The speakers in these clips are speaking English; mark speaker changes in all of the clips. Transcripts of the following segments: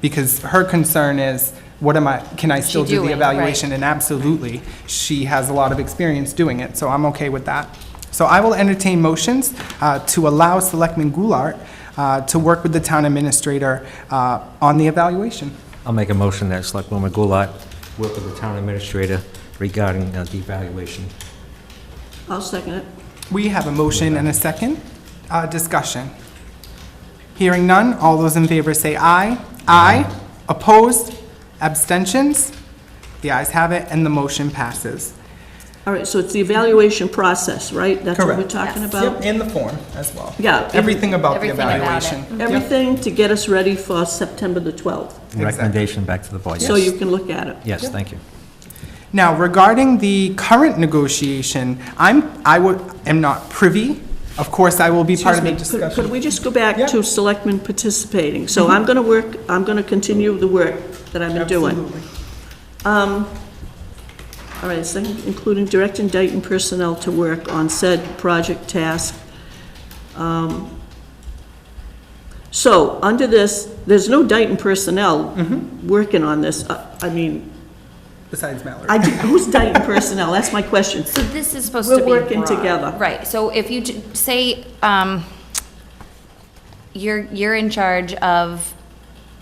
Speaker 1: Because her concern is, what am I, can I still do
Speaker 2: doing,
Speaker 1: the
Speaker 2: right.
Speaker 1: evaluation? And absolutely, she has a lot of experience doing it, so I'm okay with that. So I will entertain motions uh, to allow Selectman Goulart uh, to work with the town administrator uh, on the evaluation.
Speaker 3: I'll make a motion that Selectwoman Goulart work with the town administrator regarding uh, the evaluation.
Speaker 4: I'll second it.
Speaker 1: We have a motion and a second. Uh, Discussion. Hearing none, all those in favor say aye. Aye. Opposed? Abstentions? The ayes have it, and the motion passes.
Speaker 4: All right, so it's the evaluation process, right? That's what we're
Speaker 1: Correct.
Speaker 4: talking
Speaker 2: Yes.
Speaker 4: about?
Speaker 1: in the form as well.
Speaker 4: Yeah.
Speaker 1: Everything about the
Speaker 2: Everything about it.
Speaker 1: evaluation.
Speaker 4: Everything to get us ready for September the 12th,
Speaker 3: Recommendation back to the board.
Speaker 4: so you can look at it.
Speaker 3: Yes, thank you.
Speaker 1: Now, regarding the current negotiation, I'm, I would, am not privy. Of course, I will be part of
Speaker 4: Excuse
Speaker 1: the
Speaker 4: me, could- could
Speaker 1: discussion.
Speaker 4: we just go back
Speaker 1: Yeah. Mm-hmm.
Speaker 4: to selectmen participating? So I'm going to work, I'm going to continue the work that I've been doing. Um,
Speaker 1: Absolutely.
Speaker 4: All right, second, including direct and Dayton personnel to work on said project task. Um, So, under this, there's no Dayton personnel
Speaker 1: Mm-hmm.
Speaker 4: working on this. Uh, I mean,
Speaker 1: Besides Mallory.
Speaker 4: I, did- who's Dayton personnel? That's my question.
Speaker 2: So this is supposed
Speaker 4: We're
Speaker 2: to be.
Speaker 4: working
Speaker 2: broad.
Speaker 4: together.
Speaker 2: Right, so if you ju- say, um, you're, you're in charge of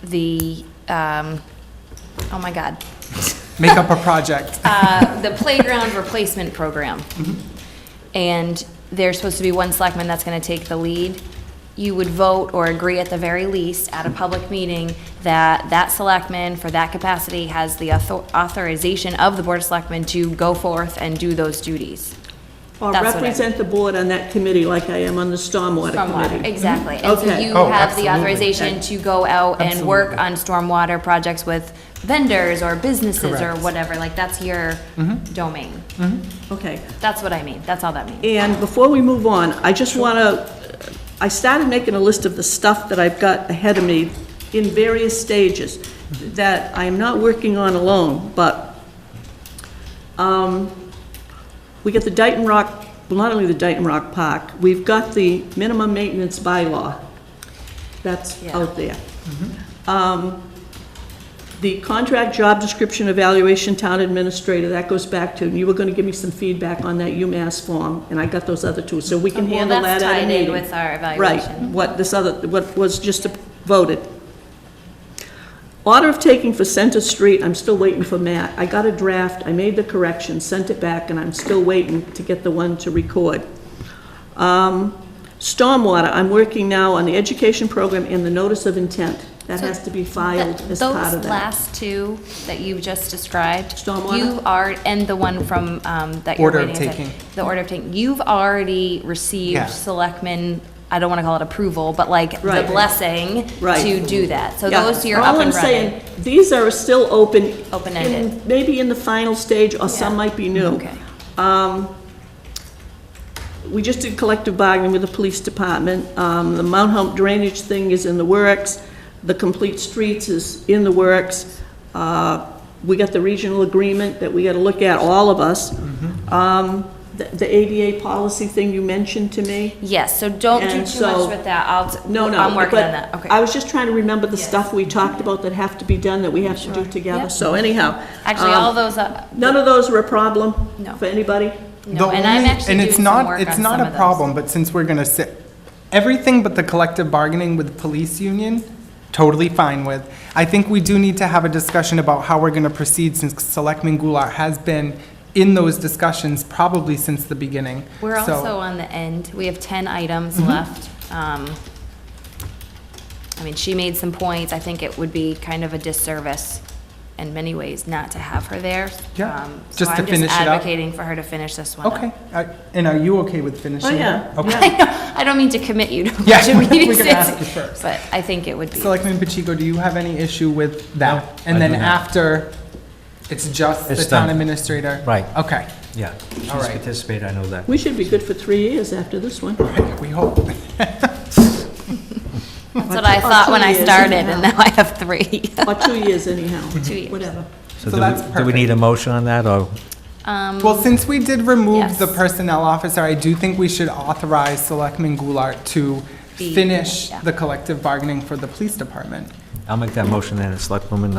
Speaker 2: the, um, oh my God,
Speaker 1: Make up a project.
Speaker 2: uh, the playground replacement program.
Speaker 4: Mm-hmm.
Speaker 2: And there's supposed to be one selectman that's gonna take the lead. You would vote or agree at the very least at a public meeting that that selectman for that capacity has the author- authorization of the board of selectmen to go forth and do those duties.
Speaker 4: Or
Speaker 2: That's what I-
Speaker 4: represent the board on that committee like I am on the stormwater
Speaker 2: Stormwater,
Speaker 4: committee.
Speaker 2: exactly. And so
Speaker 4: Okay.
Speaker 2: you
Speaker 1: Oh,
Speaker 2: have the
Speaker 1: absolutely.
Speaker 2: authorization to go out and work on stormwater projects with vendors or businesses or
Speaker 1: Correct.
Speaker 2: whatever, like that's your
Speaker 4: Mm-hmm.
Speaker 2: domain.
Speaker 4: Okay.
Speaker 2: That's what I mean, that's all that means.
Speaker 4: And before we move on, I just want to, I started making a list of the stuff that I've got ahead of me in various stages that I'm not working on alone, but um, we get the Dighton Rock, well, not only the Dighton Rock Park, we've got the minimum maintenance bylaw that's
Speaker 2: Yeah.
Speaker 4: out there. Um, The contract job description evaluation town administrator, that goes back to, and you were going to give me some feedback on that UMass form, and I got those other two, so we can
Speaker 2: Well,
Speaker 4: handle that
Speaker 2: that's
Speaker 4: at a
Speaker 2: tied in
Speaker 4: meeting.
Speaker 2: with our
Speaker 4: Right,
Speaker 2: evaluation.
Speaker 4: what this other, what was just voted. Order of taking for Center Street, I'm still waiting for Matt. I got a draft, I made the correction, sent it back, and I'm still waiting to get the one to record. Um, Stormwater, I'm working now on the education program and the notice of intent. That has to be filed
Speaker 2: Th-
Speaker 4: as part of
Speaker 2: Those
Speaker 4: that.
Speaker 2: last two that you've just described.
Speaker 4: Stormwater?
Speaker 2: You are, and the one from, um, that you're
Speaker 1: Order of
Speaker 2: waiting. to-
Speaker 1: taking.
Speaker 2: The order of taking. You've already received
Speaker 1: Yeah.
Speaker 2: selectmen, I don't want to call it approval, but like the
Speaker 4: Right.
Speaker 2: blessing
Speaker 4: Right.
Speaker 2: to do that. So
Speaker 4: Yeah.
Speaker 2: those you're up
Speaker 4: All
Speaker 2: and
Speaker 4: I'm
Speaker 2: running.
Speaker 4: saying, these are still open.
Speaker 2: Open-ended.
Speaker 4: in- Maybe in the final stage, or some
Speaker 2: Yeah.
Speaker 4: might be new.
Speaker 2: Okay.
Speaker 4: We just did collective bargaining with the police department. Um, The Mount Hump drainage thing is in the works. The complete streets is in the works. Uh, We got the regional agreement that we got to look at, all of us. Um, The the ADA policy thing you mentioned to me.
Speaker 2: Yes, so don't do
Speaker 4: And
Speaker 2: too
Speaker 4: so-
Speaker 2: much with that. I'll, t-
Speaker 4: No, no.
Speaker 2: I'm working
Speaker 4: but
Speaker 2: on that, okay.
Speaker 4: I was just trying to remember the
Speaker 2: Yes.
Speaker 4: stuff we talked about that have to be done, that we have to do together. So anyhow.
Speaker 2: Actually,
Speaker 4: um,
Speaker 2: all those, uh,
Speaker 4: None of those were a problem
Speaker 2: No.
Speaker 4: for anybody?
Speaker 2: no,
Speaker 1: The
Speaker 2: and I'm
Speaker 1: only-
Speaker 2: actually
Speaker 1: and
Speaker 2: doing
Speaker 1: it's
Speaker 2: some
Speaker 1: not-
Speaker 2: work on
Speaker 1: It's
Speaker 2: some of
Speaker 1: not a
Speaker 2: those.
Speaker 1: problem, but since we're gonna sit, everything but the collective bargaining with the police union, totally fine with. I think we do need to have a discussion about how we're gonna proceed since Selectman Goulart has been in those discussions probably since the beginning.
Speaker 2: We're
Speaker 1: So- Mm-hmm.
Speaker 2: also on the end. We have 10 items left. Um, I mean, she made some points. I think it would be kind of a disservice in many ways not to have her there.
Speaker 1: Yeah,
Speaker 2: Um, so
Speaker 1: just to
Speaker 2: I'm
Speaker 1: finish it up.
Speaker 2: advocating for her to finish this one up.
Speaker 1: Okay, I- and are you okay with
Speaker 2: Oh,
Speaker 1: finishing?
Speaker 4: Oh, yeah,
Speaker 1: that? Okay.
Speaker 2: I know- I don't mean to commit you to a
Speaker 1: Yeah,
Speaker 2: bunch of
Speaker 1: we're
Speaker 2: meetings,
Speaker 1: gonna ask
Speaker 2: it's-
Speaker 1: you first.
Speaker 2: but I think it would be.
Speaker 1: Selectman Pacheco, do you have any issue with that?
Speaker 3: I
Speaker 1: And then
Speaker 3: do not.
Speaker 1: after, it's just the
Speaker 3: It's
Speaker 1: town
Speaker 3: done.
Speaker 1: administrator?
Speaker 3: Right.
Speaker 1: Okay,
Speaker 3: Yeah. She's
Speaker 1: All right.
Speaker 3: participated, I know that.
Speaker 4: We should be good for three years after this one.
Speaker 1: we hope.
Speaker 2: That's what I
Speaker 4: Oh,
Speaker 2: thought
Speaker 4: two
Speaker 2: when I
Speaker 4: years.
Speaker 2: started, and now I have three.
Speaker 4: Or two years anyhow.
Speaker 2: Two years.
Speaker 4: Whatever.
Speaker 1: So
Speaker 3: do we-
Speaker 1: that's
Speaker 3: Do we
Speaker 1: perfect.
Speaker 3: need a motion on that, or?
Speaker 2: Um,
Speaker 1: Well, since we did remove
Speaker 2: Yes.
Speaker 1: the personnel officer, I do think we should authorize Selectman Goulart to
Speaker 2: Be-
Speaker 1: finish
Speaker 2: yeah.
Speaker 1: the collective bargaining for the police department.
Speaker 3: I'll make that motion then, Selectwoman